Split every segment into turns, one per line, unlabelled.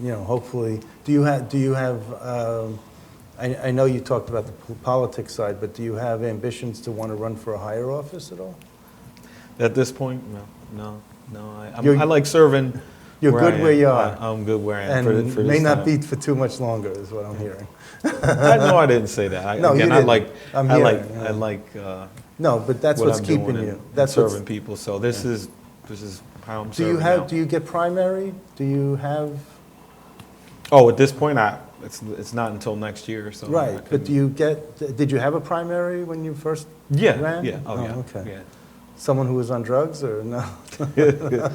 you know, hopefully, do you have, do you have, um, I, I know you talked about the p- politics side, but do you have ambitions to want to run for a higher office at all?
At this point, no, no, no. I, I'm,
You're-
I like serving.
you're
I
good where
am.
you
I-
are.
I'm good where I am. for, th-
And
for
may
this
not
time.
be for too much longer, is what I'm hearing.
I know I didn't say that. I,
No, you
again, I
didn't.
like.
I'm
I like.
hearing,
I
yeah.
like. Uh,
No, but that's
what
what's
I'm
keeping
doing and-
you.
and
That's what's,
serving people. So this is this is how I'm
do
serving.
you have,
now.
do you get primary? Do you have,
oh, at this point, I it's it's not until next year. So I
right, but
couldn't-
do you get, did you have a primary when you first
Yeah.
ran?
Yeah. Oh, yeah.
Okay. Someone who was on drugs or no?
Yeah.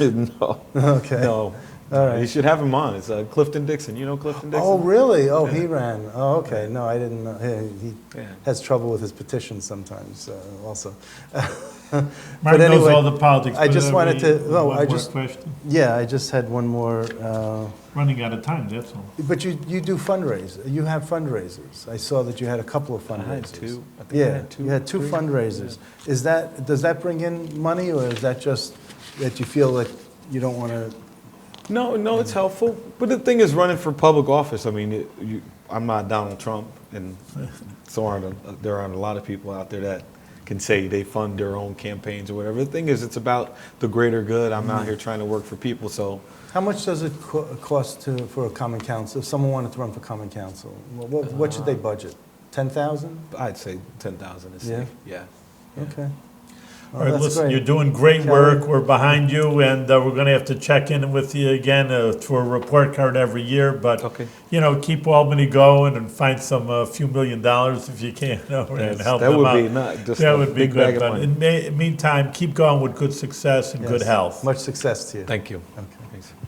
no.
Okay.
No.
All right.
You should have him on. It's uh, Clifton Dixon. You know Clifton Dixon.
Oh, really? Oh, he
Yeah.
ran. Oh, okay. No, I didn't know. He- He
Yeah.
has trouble with his petitions sometimes, uh, also.
Mark
But
knows
anyway,
all the politics.
I
but,
just
uh,
wanted
we-
to- no,
one
I
more
just-
question.
Yeah, I just had one more. uh,
Running out of time, that's all.
But you, you do fundraisers. You have fundraisers. I saw that you had a couple of
I
fundraisers.
had two. I think I
Yeah,
had two.
you had two
three.
fundraisers. Is that, does that bring in money, or is that just that you feel that you don't want to?
No, no, it's helpful. But the thing is, running for public office. I mean, it, you, I'm not Donald Trump, and so aren't a, there aren't a lot of people out there that can say they fund their own campaigns or whatever. The thing is, it's about the greater good. I'm out here trying to work for people, so
How much does it co- cost to, for a common council, if someone wanted to run for common council? What- What, what should they
Uh,
budget? 10,000?
I'd say ten thousand is
Yeah.
safe. Yeah.
Okay.
All
Well,
right,
Oh, that's
listen,
great.
you're doing great work. We're behind you, and uh, we're going to have to check in with you again uh, for a report card every year. But
Okay.
you know, keep Albany going and find some uh, few million dollars if you can over there and
Yes,
help
that
them
would
out.
be not just
that
a
would be
big bag of
good. But
money.
in the meantime, keep going with good success and good
Yes.
health.
Much success to you.
Thank you.
Okay.
Thanks.